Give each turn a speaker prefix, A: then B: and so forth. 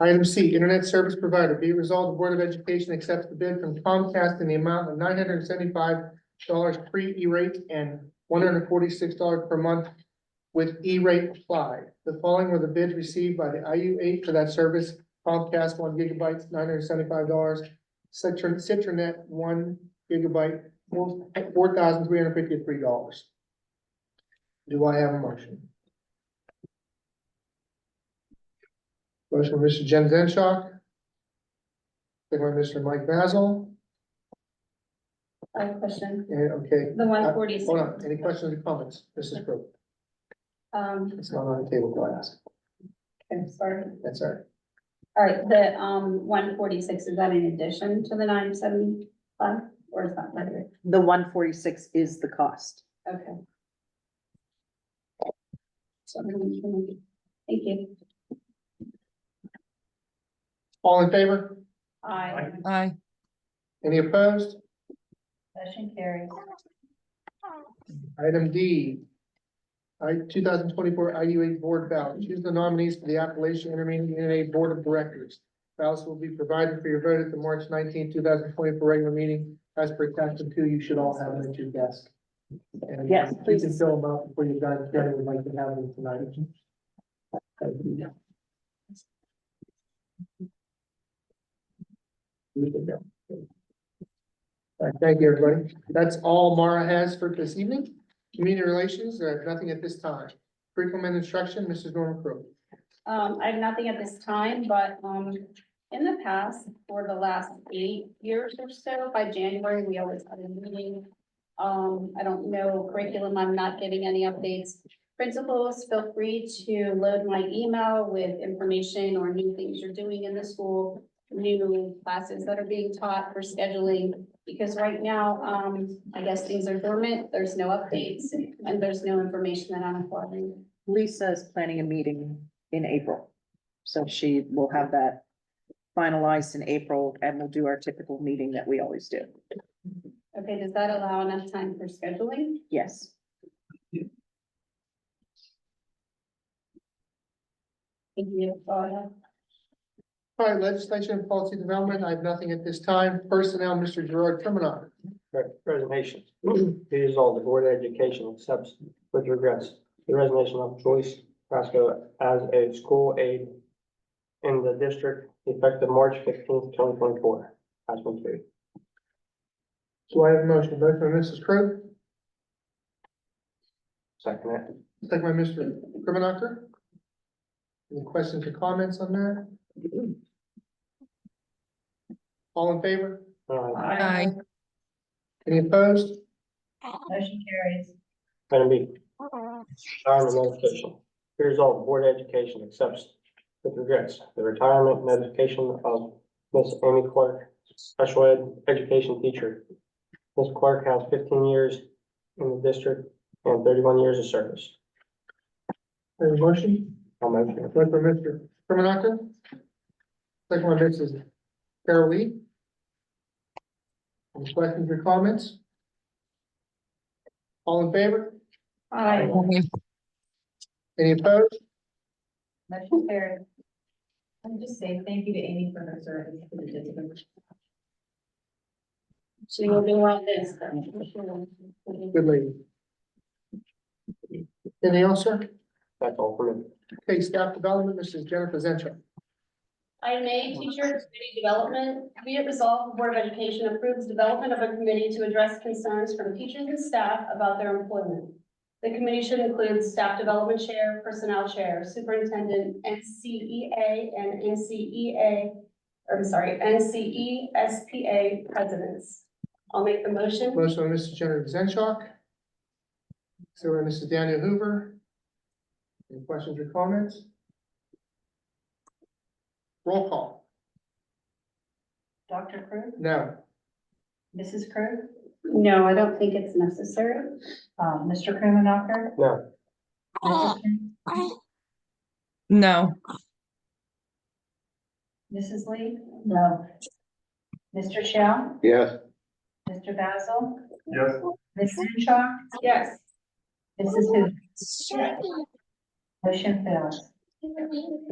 A: Item C, internet service provider, be it resolved, the Board of Education accepts the bid from Comcast in the amount of nine hundred and seventy-five dollars pre-E-rate and one hundred and forty-six dollars per month with E-rate applied. The following were the bids received by the IU eight for that service, Comcast one gigabyte, nine hundred and seventy-five dollars, Citron, Citronet one gigabyte, four thousand three hundred and fifty-three dollars. Do I have a motion? Motion, by Mr. Jen Zenshaw. Second, by Mr. Mike Basil,
B: I have a question.
A: and, okay,
B: The one forty.
A: Uh, hold on, any questions or comments, Mrs. Brooke?
B: Um,
A: It's not on the table, go ask,
B: I'm sorry.
A: that's all right.
B: All right, the, um, one forty-six, is that in addition to the nine seventy-five, or is that later?
C: The one forty-six is the cost.
B: Okay. So, thank you.
A: All in favor,
B: I
D: Aye.
A: any opposed?
B: Motion carries.
A: Item D. I, two thousand twenty-four IU eight board ballot, choose the nominees for the Appalachian Intermediate UNA Board of Directors. Ballots will be provided for your vote at the March nineteenth, two thousand twenty-four regular meeting, as per attachment two, you should all have them at your desk. And
C: Yes,
A: You
C: please.
A: can fill them out before you're done, Kevin would like to have them tonight. All right, thank you, everybody. That's all Mara has for this evening. Community relations, there are nothing at this time. Curriculum and instruction, Mrs. Norman Crowe.
B: Um, I have nothing at this time, but, um, in the past, for the last eight years or so, by January, we always had a meeting. Um, I don't know curriculum, I'm not getting any updates. Principals, feel free to load my email with information or new things you're doing in the school, new classes that are being taught for scheduling, because right now, um, I guess things are dormant, there's no updates, and there's no information that I'm acquiring.
C: Lisa is planning a meeting in April. So she will have that finalized in April and we'll do our typical meeting that we always do.
B: Okay, does that allow enough time for scheduling?
C: Yes.
B: Thank you. Go ahead.
A: All right, legislation and policy development, I have nothing at this time. Personnel, Mr. Gerard Terminal.
E: Resignation. Be resolved, the Board of Education accepts with regrets the resignation of Joyce Frasco as a school aide in the district effective March fifteenth, twenty twenty-four. Attachment three.
A: So I have a motion, motion by Mrs. Crowe,
E: Second it.
A: second by Mr. Krimenacher. Any questions or comments on that? All in favor?
E: Uh,
D: Aye.
A: Any opposed?
B: Motion carries.
E: Item B. Retirement notification. Be resolved, the Board of Education accepts with regrets the retirement notification of Miss Amy Clark, special ed education teacher. Miss Clark has fifteen years in the district and thirty-one years of service.
A: I have a motion,
E: I'll motion it.
A: motion by Mr. Krimenacher. Second by Mrs. Carol Lee. Any questions or comments? All in favor?
B: Aye.
D: Aye.
A: Any opposed?
B: Motion carries.
F: I'm just saying, thank you to Amy for her service to the district.
B: She will do all this.
A: Good lady. Anything else, sir?
E: That's all for me.
A: Okay, staff development, Mrs. Jennifer Zenshaw.
B: Item A, teacher committee development. Be it resolved, the Board of Education approves development of a committee to address concerns from teachers and staff about their employment. The committee should include staff development chair, personnel chair, superintendent, NCEA and NCEA, or I'm sorry, E NCESPA presidents. I'll make the motion.
A: Motion by Mrs. Jennifer Zenshaw. So by Mrs. Daniel Hoover. Any questions or comments? Roll call.
F: Dr. Crew,
A: No.
F: Mrs. Crew,
B: No, I don't think it's necessary.
F: uh, Mr. Krimenacher.
E: No.
F: Mrs. Crew,
D: No.
F: Mrs. Lee? No. Mr. Shell?
E: Yes.
F: Mr. Basil?
E: Yes.
F: Ms. Zenshaw?
B: Yes.
F: Mrs. Hoover? Motion fails.